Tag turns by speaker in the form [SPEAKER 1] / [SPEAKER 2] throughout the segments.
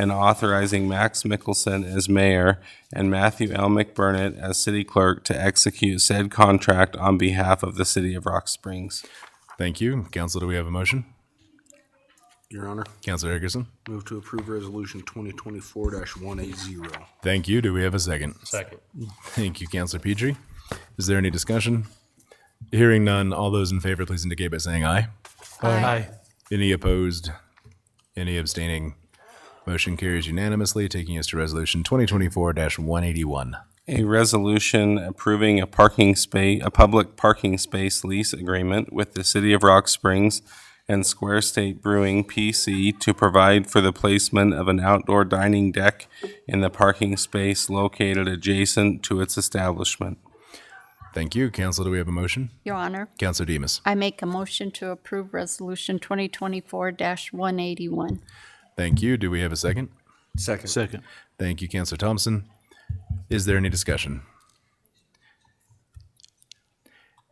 [SPEAKER 1] and authorizing Max Mickelson as mayor and Matthew L. McBurnett as city clerk to execute said contract on behalf of the city of Rock Springs.
[SPEAKER 2] Thank you. Council, do we have a motion?
[SPEAKER 3] Your Honor,
[SPEAKER 2] Councilor Hickerson?
[SPEAKER 3] move to approve Resolution 2024-180.
[SPEAKER 2] Thank you. Do we have a second?
[SPEAKER 4] Second.
[SPEAKER 2] Thank you, Councilor Petrie. Is there any discussion? Hearing none, all those in favor, please indicate by saying aye.
[SPEAKER 4] Aye.
[SPEAKER 2] Any opposed? Any abstaining? Motion carries unanimously, taking us to resolution 2024-181.
[SPEAKER 1] A resolution approving a parking space, a public parking space lease agreement with the City of Rock Springs and Square State Brewing PC to provide for the placement of an outdoor dining deck in the parking space located adjacent to its establishment.
[SPEAKER 2] Thank you. Council, do we have a motion?
[SPEAKER 5] Your Honor,
[SPEAKER 2] Councilor Demas.
[SPEAKER 5] I make a motion to approve Resolution 2024-181.
[SPEAKER 2] Thank you. Do we have a second?
[SPEAKER 3] Second.
[SPEAKER 4] Second.
[SPEAKER 2] Thank you, Councilor Thompson. Is there any discussion?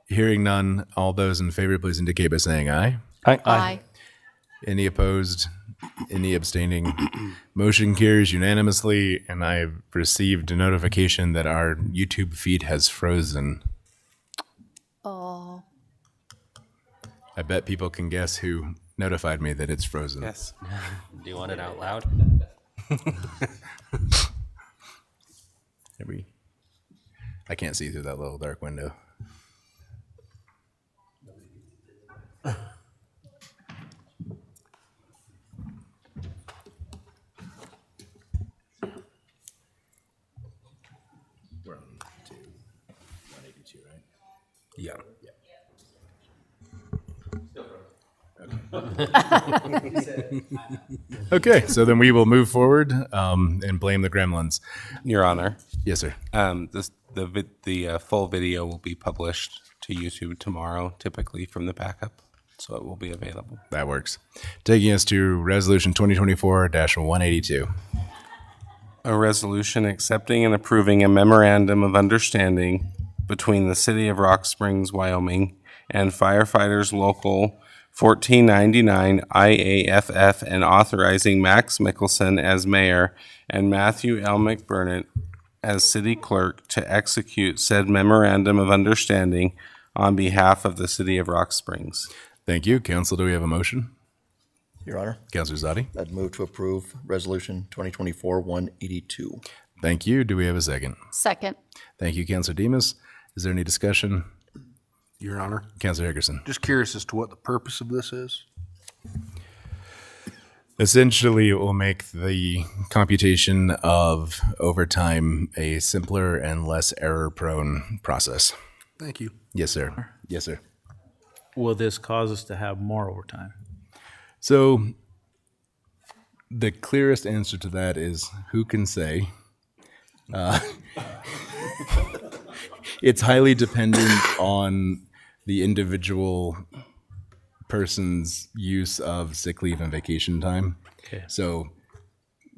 [SPEAKER 2] Hearing none, all those in favor, please indicate by saying aye.
[SPEAKER 5] Aye.
[SPEAKER 2] Any opposed? Any abstaining? Motion carries unanimously, and I've received a notification that our YouTube feed has frozen.
[SPEAKER 5] Oh,
[SPEAKER 2] I bet people can guess who notified me that it's frozen.
[SPEAKER 1] Yes.
[SPEAKER 4] Do you want it out loud?
[SPEAKER 2] Every- I can't see through that little dark window. We're on two, 182, right?
[SPEAKER 3] Yeah.
[SPEAKER 2] Okay, so then we will move forward um, and blame the gremlins.
[SPEAKER 1] Your Honor,
[SPEAKER 2] Yes, sir.
[SPEAKER 1] um, this, the, vid- the uh, full video will be published to YouTube tomorrow, typically from the backup, so it will be available.
[SPEAKER 2] That works. Taking us to resolution 2024 182.
[SPEAKER 1] A resolution accepting and approving a memorandum of understanding between the City of Rock Springs, Wyoming and firefighters local 1499 IAFF and authorizing Max Mickelson as mayor and Matthew L. McBurnett as city clerk to execute said memorandum of understanding on behalf of the City of Rock Springs.
[SPEAKER 2] Thank you. Council, do we have a motion?
[SPEAKER 6] Your Honor,
[SPEAKER 2] Councilor Zadi?
[SPEAKER 6] I'd move to approve Resolution 2024-182.
[SPEAKER 2] Thank you. Do we have a second?
[SPEAKER 5] second.
[SPEAKER 2] Thank you, Councilor Demas. Is there any discussion?
[SPEAKER 3] Your Honor,
[SPEAKER 2] Councilor Hickerson?
[SPEAKER 3] just curious as to what the purpose of this is?
[SPEAKER 2] Essentially, it will make the computation of overtime a simpler and less error-prone process.
[SPEAKER 3] Thank you.
[SPEAKER 2] Yes, sir. Yes, sir.
[SPEAKER 7] will this cause us to have more overtime?
[SPEAKER 2] So the clearest answer to that is who can say? Uh, it's highly dependent on the individual person's use of sick leave and vacation time.
[SPEAKER 7] Okay.
[SPEAKER 2] So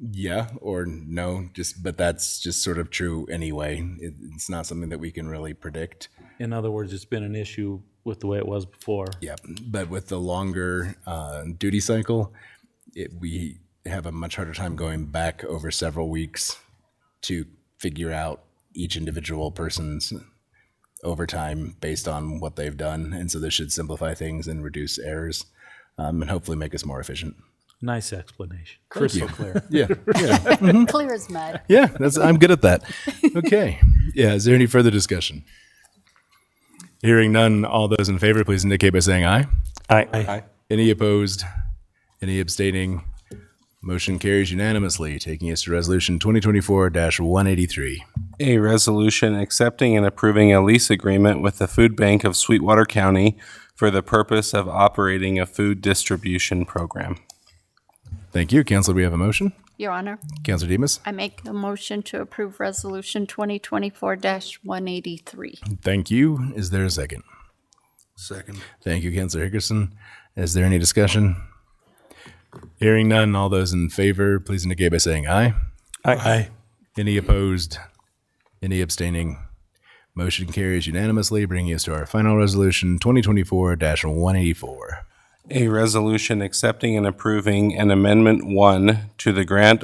[SPEAKER 2] yeah or no just but that's just sort of true anyway it, it's not something that we can really predict
[SPEAKER 7] In other words, it's been an issue with the way it was before.
[SPEAKER 2] yeah, but with the longer uh, duty cycle, it, we have a much harder time going back over several weeks to figure out each individual person's overtime based on what they've done. And so this should simplify things and reduce errors um, and hopefully make us more efficient.
[SPEAKER 7] Nice explanation.
[SPEAKER 2] Crystal clear. yeah. Yeah.
[SPEAKER 5] Clear as mud.
[SPEAKER 2] Yeah. That's, I'm good at that. Okay. Yeah. Is there any further discussion? Hearing none, all those in favor, please indicate by saying aye.
[SPEAKER 7] Aye.
[SPEAKER 2] Any opposed? Any abstaining? Motion carries unanimously, taking us to resolution 2024-183.
[SPEAKER 1] A resolution accepting and approving a lease agreement with the Food Bank of Sweetwater County for the purpose of operating a food distribution program.
[SPEAKER 2] Thank you. Counselor, we have a motion.
[SPEAKER 5] Your Honor,
[SPEAKER 2] Counselor Demas?
[SPEAKER 5] I make a motion to approve Resolution 2024-183.
[SPEAKER 2] Thank you. Is there a second?
[SPEAKER 3] Second.
[SPEAKER 2] Thank you, Counselor Hickerson. Is there any discussion? Hearing none, all those in favor, please indicate by saying aye.
[SPEAKER 7] Aye.
[SPEAKER 2] Any opposed? Any abstaining? Motion carries unanimously, bringing us to our final resolution, 2024-184.
[SPEAKER 1] A resolution accepting and approving an Amendment 1 to the grant